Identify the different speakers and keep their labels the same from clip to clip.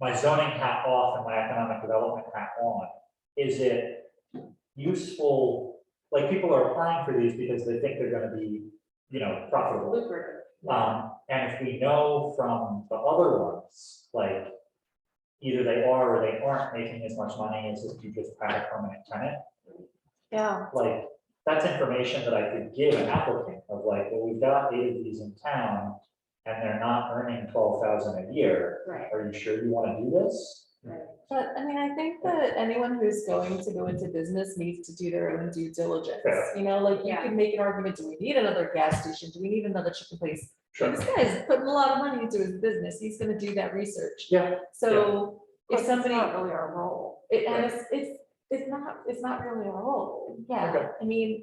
Speaker 1: my zoning hat off and my economic development hat on, is it useful? Like, people are applying for these because they think they're gonna be, you know, profitable.
Speaker 2: Lucrative.
Speaker 1: Um, and if we know from the other ones, like, either they are or they aren't making as much money as if you just had a permanent tenant,
Speaker 2: Yeah,
Speaker 1: like, that's information that I could give an applicant of like, well, we've got eight of these in town, and they're not earning twelve thousand a year.
Speaker 2: right.
Speaker 1: Are you sure you wanna do this?
Speaker 3: But I mean, I think that anyone who's going to go into business needs to do their own due diligence.
Speaker 1: Yeah.
Speaker 3: You know, like you
Speaker 2: Yeah.
Speaker 3: can make an argument, do we need another gas station? Do we need another chicken place? This guy's putting a lot of money into his business. He's gonna do that research.
Speaker 1: Yeah.
Speaker 3: So
Speaker 2: If
Speaker 3: if somebody,
Speaker 2: somebody. Really our role.
Speaker 3: it- and it's, it's, it's not, it's not really a role.
Speaker 1: Okay.
Speaker 3: Yeah, I mean,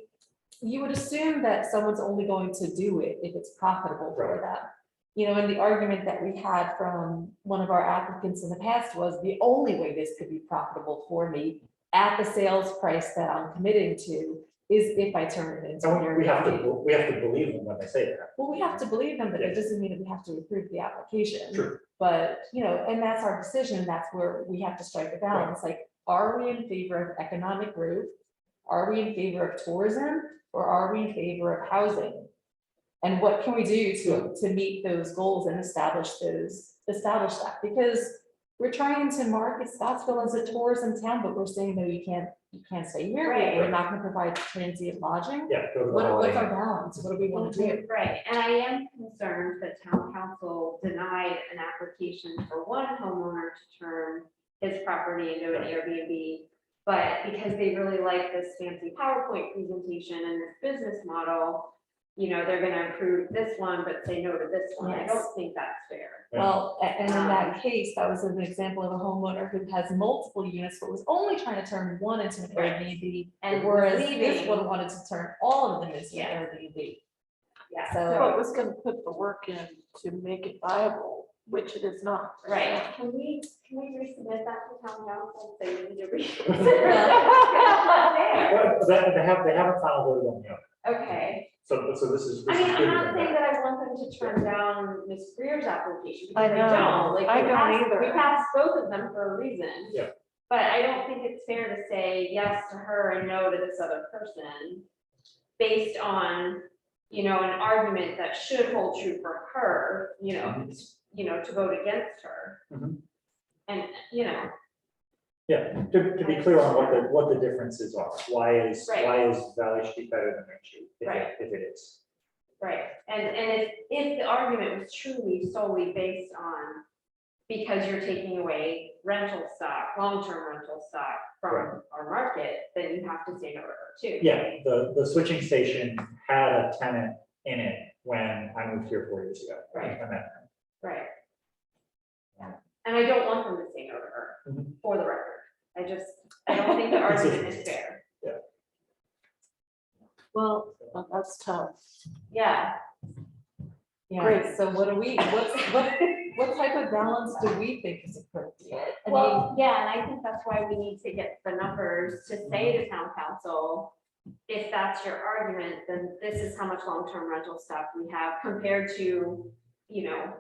Speaker 3: you would assume that someone's only going to do it if it's profitable for
Speaker 1: Right.
Speaker 3: them. You know, and the argument that we had from one of our applicants in the past was the only way this could be profitable for me at the sales price that I'm committing to is if I turn it into an
Speaker 1: So we have to,
Speaker 3: Airbnb.
Speaker 1: we have to believe them when they say that.
Speaker 3: Well, we have to believe them, but
Speaker 1: Yeah.
Speaker 3: it doesn't mean that we have to approve the application.
Speaker 1: True.
Speaker 3: But, you know, and that's our decision, and that's where we have to strike a balance, like, are we in favor of economic growth? Are we in favor of tourism, or are we in favor of housing? And what can we do to, to meet those goals and establish those, establish that, because we're trying to market Scottsville as a tourism town, but we're saying, no, you can't, you can't stay here,
Speaker 2: Right.
Speaker 3: we're not gonna provide transient lodging.
Speaker 1: Yeah. go to the
Speaker 3: What,
Speaker 1: Holiday
Speaker 3: what's
Speaker 1: Inn.
Speaker 3: our balance, what do we wanna do?
Speaker 2: Right, and I am concerned that town council denied an application for one homeowner to turn his property into an Airbnb. But because they really like this fancy PowerPoint presentation and this business model, you know, they're gonna approve this one, but say no to this one. I don't
Speaker 3: Yes.
Speaker 2: think that's fair.
Speaker 1: Yeah.
Speaker 3: Well, a- and in
Speaker 2: Um,
Speaker 3: that case, that was an example of a homeowner who has multiple units, but was only trying to turn one into an
Speaker 2: Right.
Speaker 3: Airbnb.
Speaker 2: And
Speaker 3: Whereas
Speaker 2: leaving-
Speaker 3: this one wanted to turn all of them into
Speaker 2: Yeah.
Speaker 3: an Airbnb.
Speaker 2: Yeah,
Speaker 3: So,
Speaker 4: But was gonna put the work in to make it viable, which it is not.
Speaker 2: right. Can we, can we resubmit that to town council? They need to
Speaker 3: Well-
Speaker 2: reconsider.
Speaker 1: Well, that- They have, they haven't found a one yet,
Speaker 2: Okay.
Speaker 1: so, so this is. this
Speaker 2: I
Speaker 1: is
Speaker 2: mean, I'm
Speaker 1: good.
Speaker 2: not saying that I want them to turn down Ms. Greer's application,
Speaker 4: I
Speaker 2: because I
Speaker 4: know.
Speaker 2: don't, like,
Speaker 4: I
Speaker 2: we
Speaker 4: don't
Speaker 2: passed,
Speaker 4: either.
Speaker 2: we passed both of them for a reason.
Speaker 1: Yeah.
Speaker 2: But I don't think it's fair to say yes to her and no to this other person, based on, you know, an argument that should hold true for her, you know,
Speaker 1: Mm-hmm.
Speaker 2: you know, to vote against her.
Speaker 1: Mhm.
Speaker 2: And, you know,
Speaker 1: Yeah, to, to be clear on what the, what the differences are, why is,
Speaker 2: Right.
Speaker 1: why is Valley Street better than Orange Street? if it-
Speaker 2: Right.
Speaker 1: If it is.
Speaker 2: Right, and, and if, if the argument was truly solely based on, because you're taking away rental stock, long-term rental stock from our market, then you have to say no to her too.
Speaker 1: Yeah, the, the switching station had a tenant in it when I moved here four years ago.
Speaker 2: Right.
Speaker 1: And that-
Speaker 2: Right. Yeah. And I don't want them to say no to her,
Speaker 1: Mhm.
Speaker 2: for the record, I just, I don't think the argument is fair,
Speaker 4: Well, that's tough.
Speaker 2: yeah.
Speaker 3: yeah,
Speaker 4: Great.
Speaker 3: so what do we, what's, what, what type of balance do we think is appropriate? I mean,
Speaker 2: Well, yeah, and I think that's why we need to get the numbers to say to town council, if that's your argument, then this is how much long-term rental stock we have compared to, you know,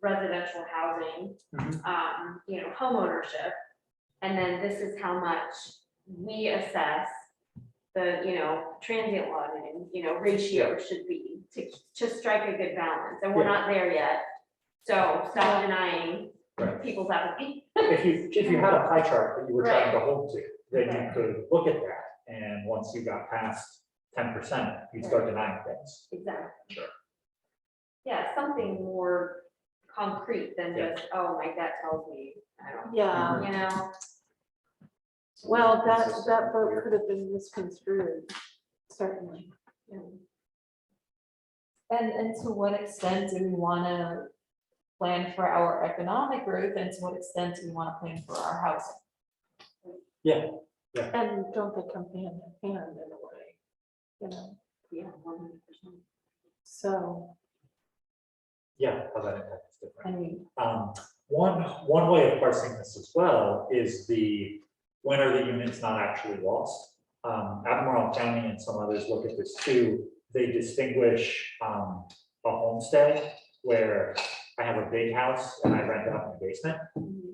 Speaker 2: residential housing,
Speaker 1: Mhm.
Speaker 2: um, you know, homeownership. And then this is how much we assess the, you know, transient lodging, you know, ratio should be to, to strike a good balance, and we're
Speaker 1: Yeah.
Speaker 2: not there yet. So stop denying
Speaker 1: Right.
Speaker 2: people's applications.
Speaker 1: If you, if you had a pie chart that you were trying
Speaker 2: Right.
Speaker 1: to hold to, then you
Speaker 2: Right.
Speaker 1: could look at that, and once you got past ten percent, you'd start denying things.
Speaker 2: Exactly.
Speaker 1: Sure.
Speaker 2: Yeah, something more concrete than
Speaker 1: Yeah.
Speaker 2: just, oh, my gut tells me, I don't,
Speaker 4: Yeah,
Speaker 2: you know,
Speaker 1: Mm-hmm.
Speaker 4: well, that, that vote could have been misconstrued, certainly.
Speaker 2: you know,
Speaker 3: and, and to what extent do we wanna plan for our economic growth and to what extent do we wanna plan for our housing?
Speaker 4: And don't they come hand in hand in a way? You know,
Speaker 2: yeah, one hundred percent.
Speaker 4: so,
Speaker 1: Yeah, how that impacts different.
Speaker 3: I mean,
Speaker 1: Um, one, one way of parsing this as well is the, when are the units not actually lost? Um, Admiral County and some others look at this too. They distinguish, um, a homestead where I have a big house and I rent it out in the basement.